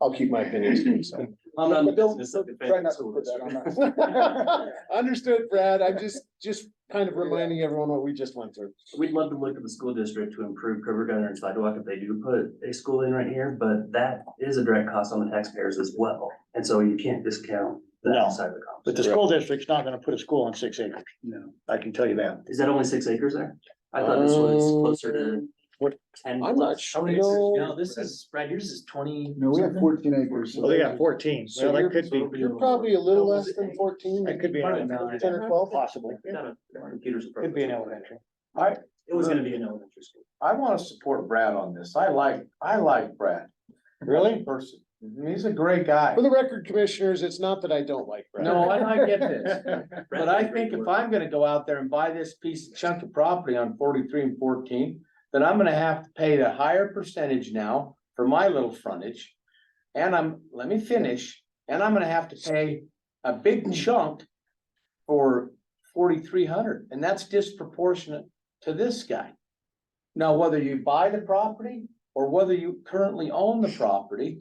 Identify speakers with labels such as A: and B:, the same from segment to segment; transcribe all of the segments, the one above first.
A: I'll keep my opinions to myself.
B: I'm not in the
A: But don't-
B: business of
A: Try
B: defending
A: not to
B: school
A: put that on
B: districts.
A: us. Understood, Brad. I'm just, just kind of reminding everyone what we just went through.
B: We'd love to look at the school district to improve curb gutter and sidewalk if they do put a school in right here, but that is a direct cost on the taxpayers as well. And so you can't discount
C: No.
B: that side of the cost.
C: But the school district's not gonna put a school on six acres.
B: No.
C: I can tell you that.
B: Is that only six acres there? I thought this was
A: Um,
B: closer to
A: what-
B: ten.
A: I'm not
B: How many acres?
A: sure.
B: No, this is, Brad, yours is twenty.
D: No, we have
B: something?
D: fourteen acres. so
C: Well, Oh, they got fourteen, so that could be,
A: You're probably a little less than fourteen.
C: that could be
B: Probably
C: an
B: nine.
C: elementary, ten or twelve possibly.
B: Not a- our Computers. are
C: Could be an
B: broken.
C: elementary.
B: It was gonna be an elementary school.
D: I wanna support Brad on this. I like, I like Brad.
C: Really?
D: Person. He's a great guy.
A: For the record, commissioners, it's not that I don't like Brad.
E: No, and I get this,
B: Brad
E: but I
B: did great
E: think if
B: work.
E: I'm gonna go out there and buy this piece of chunk of property on forty-three and fourteen, then I'm gonna have to pay the higher percentage now for my little frontage. And I'm, let me finish, and I'm gonna have to pay a big chunk for forty-three hundred, and that's disproportionate to this guy. Now, whether you buy the property or whether you currently own the property,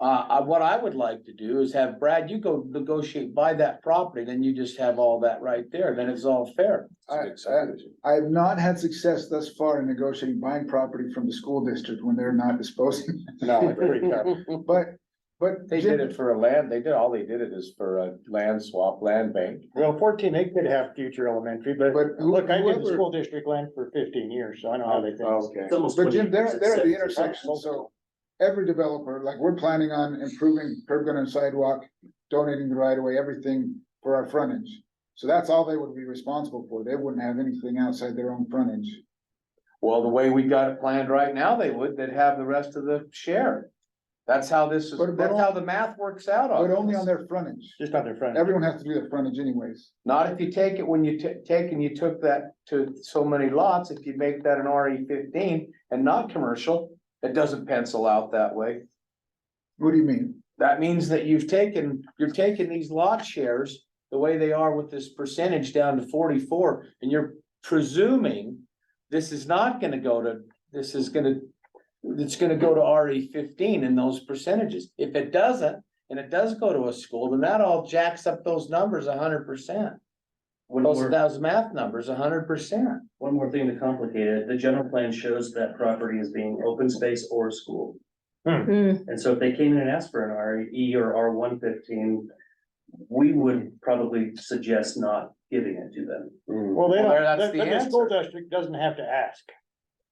E: uh, I, what I would like to do is have Brad, you go negotiate, buy that property, then you just have all that right there, then it's all fair.
D: I, I, I have not had success thus far in negotiating buying property from the school district when they're not disposing,
E: No, it's pretty tough.
D: but, but.
E: They did it for a land, they did, all they did it is for a land swap, land bank.
C: Well, fourteen, they could have future elementary, but
D: But who-
C: look, I did the
D: whoever-
C: school district land for fifteen years, so I know how they
E: Oh,
C: think.
D: Oh, Okay.
B: It's almost
D: But Jim,
B: 20
D: they're,
B: acres.
D: they're at the
B: It's-
D: intersection, so every developer, like, we're planning on improving curb gutter and sidewalk, donating the right of way, everything for our frontage. So that's all they would be responsible for. They wouldn't have anything outside their own frontage.
E: Well, the way we got it planned right now, they would, they'd have the rest of the share. That's how this is,
D: But- but
E: that's
D: on-
E: how the math works out on
D: But only on
E: this.
D: their frontage.
C: Just on their front.
D: Everyone has to do their frontage anyways.
E: Not if you take it when you ta- take and you took that to so many lots, if you make that an RE fifteen and not commercial, it doesn't pencil out that way.
D: What do you mean?
E: That means that you've taken, you're taking these lot shares, the way they are with this percentage down to forty-four, and you're presuming. This is not gonna go to, this is gonna, it's gonna go to RE fifteen in those percentages. If it doesn't, and it does go to a school, then that all jacks up those numbers hundred percent.
B: One
E: Those,
B: more-
E: those math numbers hundred percent.
B: One more thing to complicate it, the general plan shows that property is being open space or school. Hmm. And so if they came in and asked for an R E or R one fifteen, we would probably suggest not giving it to them.
C: Well, they
E: Well, there,
C: don't,
E: that's
C: the,
E: the
C: the school district doesn't have to ask.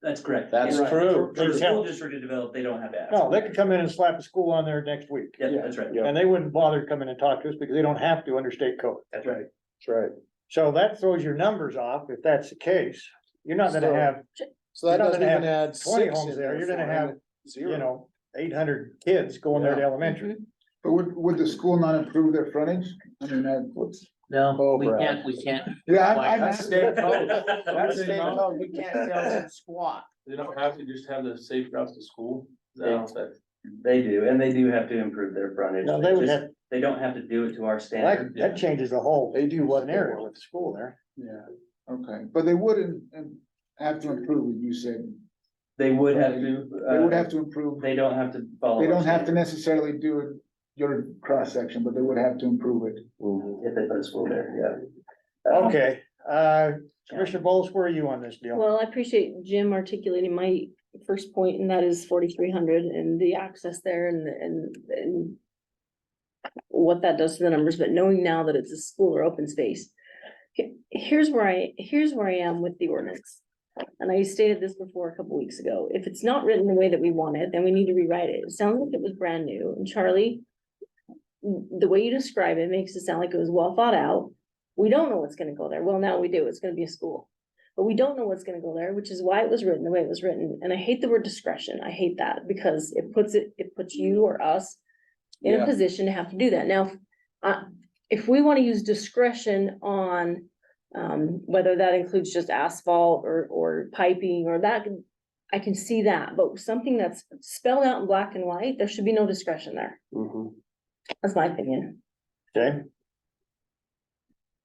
B: That's correct.
E: That's
B: Right.
E: true.
B: For the school district to develop, they don't have to ask.
C: No, they could come in and slap a school on there next week.
B: Yeah, that's right,
C: And they wouldn't bother to come in and talk to us because they don't have to under state code.
B: that's right.
A: That's right.
C: So that throws your numbers off if that's the case. You're not
A: So-
C: gonna have,
A: So that
C: You're not
A: doesn't
C: gonna
A: even add
C: twenty
A: six
C: homes
A: in
C: there,
A: there.
C: you're gonna
A: for
C: have,
A: him.
C: you
A: Zero.
C: know, eight hundred kids going there to elementary.
D: But would, would the school not improve their frontage? I mean, that.
A: Oh,
B: No,
A: we Brad. can't-
B: we can't.
D: Yeah,
B: Why?
D: I'm, I'm.
B: That's state code.
E: Oh,
B: That's
E: state code. You can't sell some squat.
F: They don't have to just have the safe routes to school.
B: No.
F: That's-
B: They do, and they do have to improve their frontage.
C: No, they would
B: just-
C: have,
B: They don't have to do it to our standard.
C: that, that changes the whole
A: They do what they
C: scenario
A: want.
C: with the school there.
D: Yeah, okay, but they wouldn't, and have to improve, you said,
B: They would have to.
D: they would
B: uh,
D: have to improve,
B: They don't have to follow.
D: they
B: our
D: don't have to
B: standard
D: necessarily do it, your cross section, but they would have to improve it.
B: If they put a school there, yeah.
C: Okay, uh, Commissioner Bowles, where are you on this deal?
G: Well, I appreciate Jim articulating my first point, and that is forty-three hundred and the access there and, and, and what that does to the numbers, but knowing now that it's a school or open space. He- Here's where I, here's where I am with the ordinance. And I stated this before a couple weeks ago. If it's not written the way that we want it, then we need to rewrite it. It sounds like it was brand new. And Charlie, the way you describe it makes it sound like it was well thought out. We don't know what's gonna go there. Well, now we do. It's gonna be a school. But we don't know what's gonna go there, which is why it was written the way it was written. And I hate the word discretion. I hate that because it puts it, it puts you or us in
E: Yeah.
G: a position to have to do that. Now, uh, if we wanna use discretion on um, whether that includes just asphalt or, or piping or that, can- I can see that, but something that's spelled out in black and white, there should be no discretion there. That's my opinion.
C: Okay.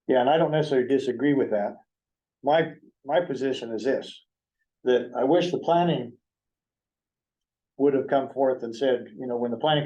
C: Yeah, and I don't necessarily disagree with that. My, my position is this, that I wish the planning would have come forth and said, you know, when the planning